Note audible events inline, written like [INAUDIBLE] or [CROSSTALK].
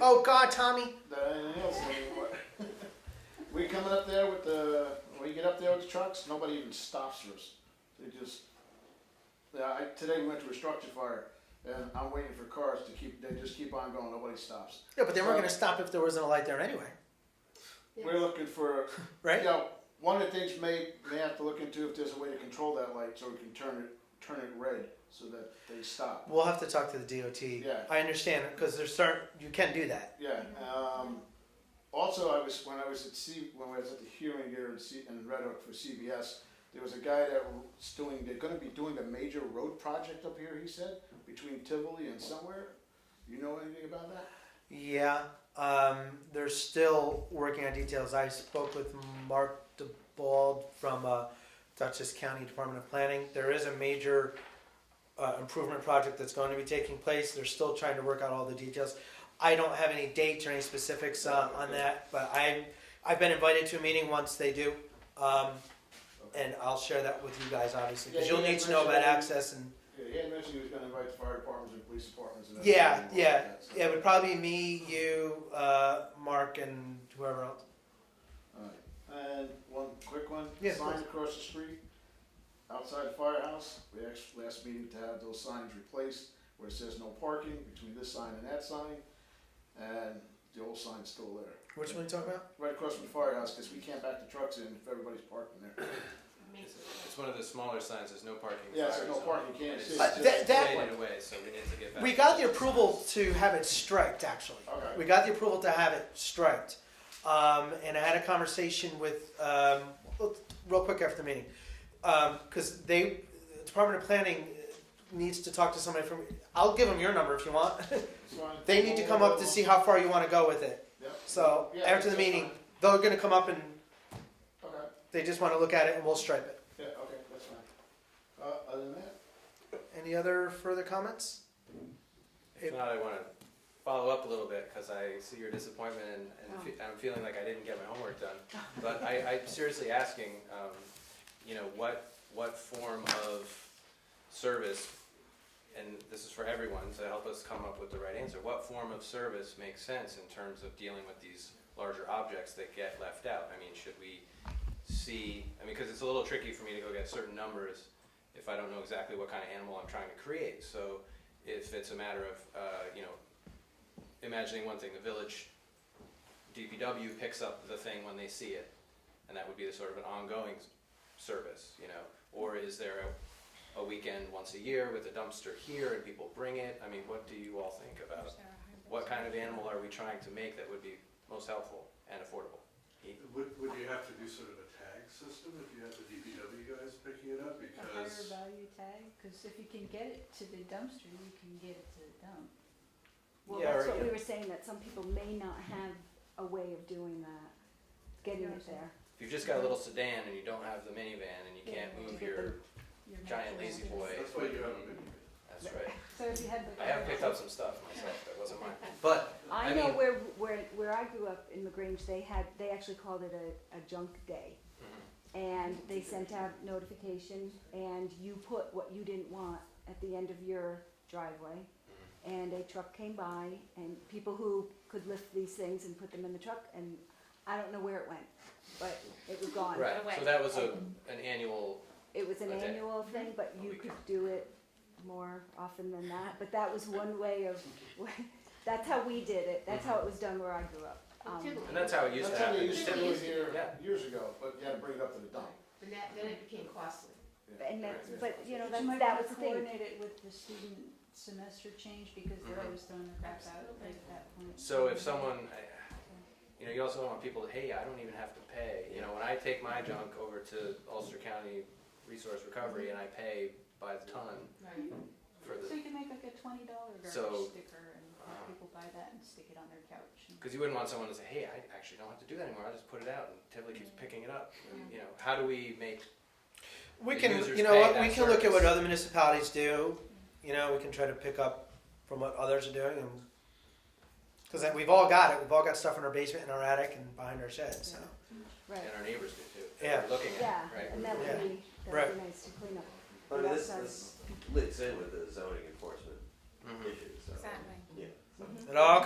Oh God, Tommy. than anything else anymore. [LAUGHS] we coming up there with the when you get up there with the trucks, nobody even stops for us. They just yeah, I, today we went to a structure fire and I'm waiting for cars to keep they just keep on going, nobody stops. Yeah, but they weren't going to stop if there wasn't a light there anyway, We're looking for right? you know, one of the things may may have to look into if there's a way to control that light so we can turn it turn it red so that they stop. We'll have to talk to the DOT. Yeah. I understand because there's certain you can do that. Yeah. Um, also, I was when I was at C, when I was at the hearing here in, C, in Red Hook for CBS. There was a guy that was doing. They're going to be doing a major road project up here. He said between Tivoli and somewhere. You know anything about that? Yeah, um, they're still working on details. I spoke with Mark DeBald from uh, Dutchess County Department of Planning. There is a major uh, improvement project that's going to be taking place. They're still trying to work out all the details. I don't have any dates or any specifics uh, on that, but I I've been invited to a meeting once they do. Um, and I'll share that with you guys, obviously, because Yeah, you'll you need to know about mentioned- access and Yeah, he had mentioned he was going to invite the fire departments and police departments. And everything Yeah, involved yeah, in that, so- yeah. It would probably be me, you, uh, Mark, and whoever else. Alright, and one quick one. Yeah, Signs please. across the street, outside the firehouse, we asked last meeting to have those signs replaced where it says no parking between this sign and that sign, and the old sign's still there. Which one you talking about? Right across from the firehouse, because we can't back the trucks in if everybody's parking there. It's one of the smaller signs, there's no parking. Yeah, it's fire no zone. parking, you can't And it's see. But just Uh, that- that faded away, so we need to get back We to got the those approval signs. to have it striped, actually. Okay. We got the approval to have it striped. Um, and I had a conversation with, um, real quick after the meeting, because they, Department of Planning needs to talk to somebody from, I'll give them your number if you want. [LAUGHS] It's fine. They need to come up to see how far you want to go with it. Yep. So Yeah, after the that's meeting, fine. they're going to come up and Okay, they just want to look at it and we'll stripe it. yeah, okay, that's fine. Uh, other than that, Any other further comments? If not, I wanna follow up a little bit, cause I see your disappointment and, and fe- I'm feeling like I didn't get my homework done. But I, I'm seriously asking, um, you know, what, what form of service, and this is for everyone to help us come up with the right answer, what form of service makes sense in terms of dealing with these larger objects that get left out? I mean, should we see, I mean, because it's a little tricky for me to go get certain numbers if I don't know exactly what kind of animal I'm trying to create. So if it's a matter of, uh, you know, imagining one thing, the village DPW picks up the thing when they see it, and that would be the sort of an ongoing s- service, you know? Or is there a, a weekend once a year with a dumpster here and people bring it? I mean, what do you all think about? What kind of animal are we trying to make that would be most helpful and affordable? Would, would you have to do sort of a tag system if you had the DPW guys picking it up A higher because? value tag, because if you can get it to the dumpster, you can get it to the dump. Well, Yeah, that's or- what we were saying, that some people may not have a way of doing that, getting Yeah. it there. If you've just got a little sedan and you don't have the minivan and you can't Yeah, to move get your, Your Giant natural lazy ones. boy. That's why you have a mini. that's right. So if you had the. Um, I have picked up some stuff myself that wasn't [LAUGHS] mine, but I I know mean- where, where, where I grew up in LaGrange, they had, they actually called it a, a junk day. Mm-hmm. And they sent out notification and you put what you didn't want at the end of your driveway. Mm-hmm. And a truck came by and people who could lift these things and put them in the truck and I don't know where it went, but it was gone. right. away. So that was a an annual It was an Okay. annual Mm-hmm. thing, but A you week. could do it more often than that, but that was one way of, [LAUGHS] that's how we did it, that's how it was done where I grew up. Um, Tivoli. And that's how it used that's to how they happen. used to do it here Yeah. years ago, but you had to bring it up to the dump. And that, then it became costly. And that's, but, you know, But that's, you might that wanna was the thing, Coordinate it with the student semester change, because they're Mhm. always throwing the crap out Absolutely. at that point. So if someone, I- you know, you also don't want people to, hey, I don't even have to pay. You know, when I take my junk over to Ulster County Resource Recovery and I pay by the ton Right. for So the, you can make like a twenty dollar So- garbage sticker and Uh-huh. have people buy that and stick it on their couch and. because you wouldn't want someone to say, hey, I actually don't have to do that anymore. I just put it out and Tivoli keeps picking it up. And, You know, how do we make, We the can, users you know pay what, that we can look at what service. other municipalities do, you know, we can try to pick up from what others are doing and. Cause like, we've all got it, we've all got stuff in our basement, in our attic and behind our shed, so. right, and our neighbors do too, if Yeah. they're looking yeah, at it, right? and that Yeah. would be, that would Right. be nice to clean up. I mean, this, Outside. this links in with the zoning enforcement Mhm. issue, so. Exactly. Yeah. so. Mhm. It all